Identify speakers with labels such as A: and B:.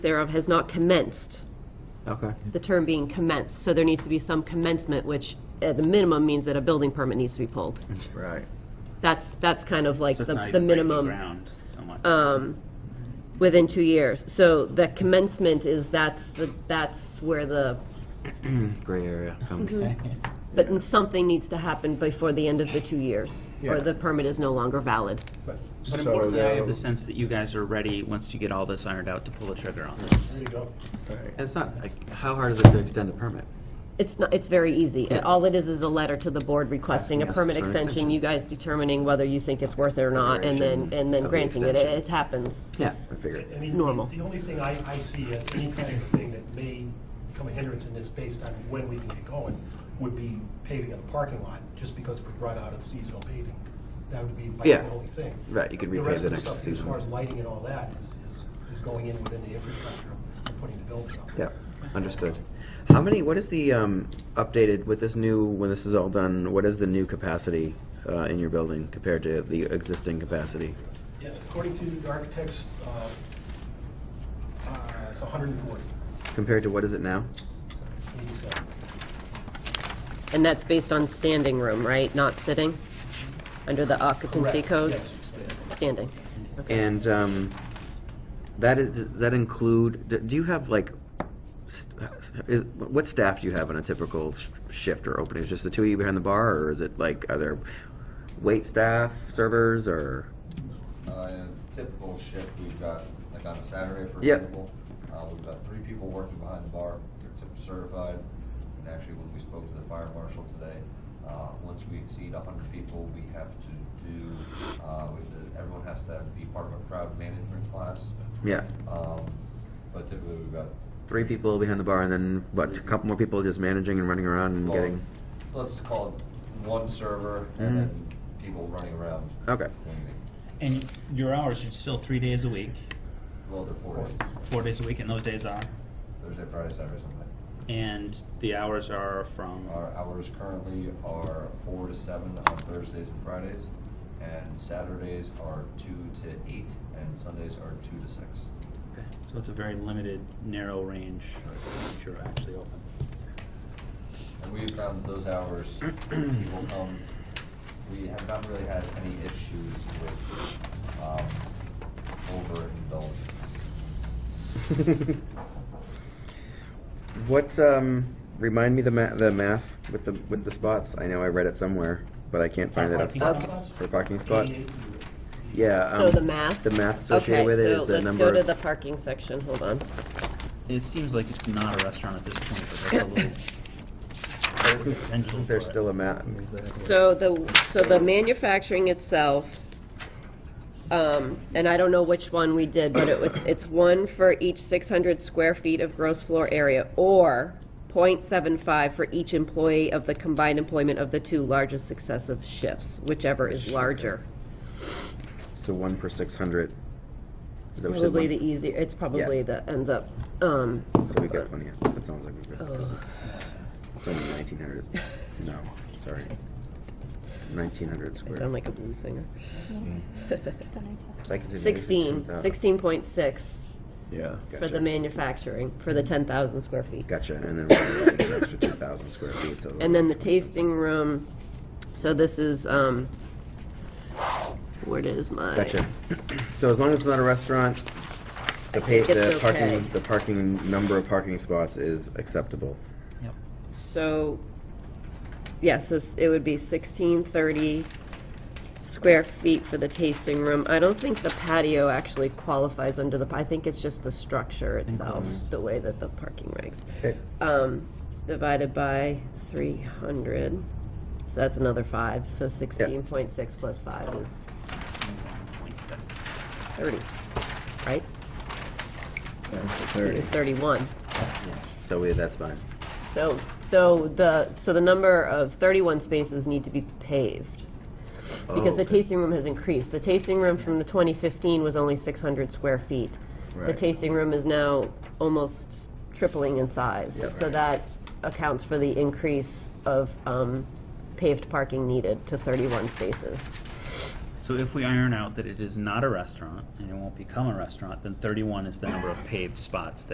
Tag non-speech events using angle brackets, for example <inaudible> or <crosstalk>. A: thereof has not commenced,
B: Okay.
A: the term being commenced. So there needs to be some commencement, which at a minimum means that a building permit needs to be pulled.
C: Right.
A: That's, that's kind of like
D: So it's
A: the,
D: not
A: the
D: even breaking
A: minimum um,
D: ground so much.
A: within two years. So the commencement is, that's, the that's where the,
B: Gray <laughs> area Um, comes.
A: but then something needs to happen before the end of the two years,
C: Yeah.
A: or the permit is no longer valid.
C: But
D: But
C: so
D: importantly, I have
C: now,
D: the sense that you guys are ready, once you get all this ironed out, to pull the trigger on this.
C: right.
B: It's not, like, how hard is it to extend a permit?
A: It's not, it's very easy. All it is is a letter to the board requesting a
B: Asking us
A: permit
B: to an
A: extension,
B: extension.
A: you guys determining whether you think it's worth it or not, and then,
B: Consideration
A: and then
B: of the
A: granting it. It
B: extension.
A: it happens.
B: Yeah,
A: It's-
B: I figured.
E: I mean,
A: Normal.
E: The only thing I, I see as any kind of thing that may become a hindrance in this based on when we can get going would be paving of the parking lot, just because if we run out of seasonal paving, that would be by
B: Yeah.
E: the only thing.
B: Right, you could repave
E: rest
B: the
E: of
B: next
E: stuff,
B: season.
E: As far as lighting and all that is, is, is going in within the infrastructure and putting the building up.
B: Yeah, understood. How many, what is the, um, updated, with this new, when this is all done, what is the new capacity, uh, in your building compared to the existing capacity?
E: Yeah, according to the architects, uh, uh, it's hundred and forty,
B: Compared to what is it now?
E: so eighty-seven.
A: And that's based on standing room, right? Not sitting? Under the occupancy
E: Correct.
A: codes?
E: Yes, it's there.
A: Standing.
B: And, um, that is, does that include, do- do you have like, st- is, what staff do you have on a typical sh- shift or opening? Is just the two of you behind the bar, or is it like, are there wait staff, servers, or?
F: Uh, in a typical shift, we've got, like on a Saturday, for
B: Yep.
F: example, uh, we've got three people working behind the bar, they're tip certified. And actually, when we spoke to the fire marshal today, uh, once we exceed hundred people, we have to do, uh, we have to- everyone has to be part of a crowd management class.
B: Yeah,
F: Um, but typically, we've got.
B: three people behind the bar, and then what? A couple more people just managing and running around and
F: well,
B: getting.
F: Let's call it one server
B: Mhm.
F: and then people running around.
B: Okay. <laughs>
F: cleaning.
D: And your hours are still three days a week,
F: Well, they're four days,
D: four days a week, and those days are.
F: Thursday, Friday, Saturday, Sunday.
D: And the hours are from, uh,
F: Our hours currently are four to seven on Thursdays and Fridays, and Saturdays are two to eight, and Sundays are two to six.
D: Okay. so it's a very limited, narrow range that you're actually open.
F: And we've found those hours, people come, we have not really had any issues with, um, overindulgence.
B: What? Um, remind me the ma- the math with the with the spots. I know I read it somewhere, but I can't find it. Off the
D: Parking
B: top.
E: spots?
B: For parking spots.
E: 88 units.
B: Yeah.
A: So
B: um,
A: the math?
B: The math associated with it is the number.
A: Okay, so let's go to
B: of-
A: the parking section, hold on.
D: It seems like it's not a restaurant at this point, but
B: <coughs>
D: that's a little.
B: isn't,
D: potential
B: isn't
D: for
B: there
D: it.
B: still a math?
A: So the, so the manufacturing itself, um, and I don't know which one we did, but it was, it's one for each six hundred square feet of gross floor area, or 0.75 for each employee of the combined employment of the two largest successive shifts, whichever is larger.
B: So one per six hundred.
A: Probably the e- easier, it's probably the, ends up, um,
B: So we got plenty. Of, that sounds like we got because it's it's only
A: <laughs>
B: nineteen hundred. No, sorry. Nineteen hundred
A: I
B: square.
A: sound like a blues singer.
B: So I consider it
A: 16,
B: 10,000.
A: 16.6
B: Yeah.
A: for the manufacturing, for the 10,000 square feet.
B: Gotcha, and then we're adding an extra two thousand square feet, so.
A: And then the tasting room, so this is, um, where is my?
B: Gotcha. So as long as it's not a restaurant, the pay,
A: think it's
B: the
A: okay.
B: parking, the parking, number of parking spots is acceptable.
D: Yep.
A: So, yeah, so s- it would be 1630 square feet for the tasting room. I don't think the patio actually qualifies under the, I think it's just the structure itself, the way that the parking regs.
B: Mm-hmm. Okay.
A: um, divided by 300. So that's another five. So 16.6 plus five is 30, right? It was 31.
B: So we, that's fine.
A: So, so the, so the number of 31 spaces need to be paved. Because the
B: Oh, okay.
A: tasting room has increased. The tasting room from the 2015 was only 600 square feet. The
B: Right.
A: tasting room is now almost tripling in size. So that accounts for the increase of um, paved parking needed to 31 spaces.
D: So if we iron out that it is not a restaurant and it won't become a restaurant, then thirty-one is the number of paved spots that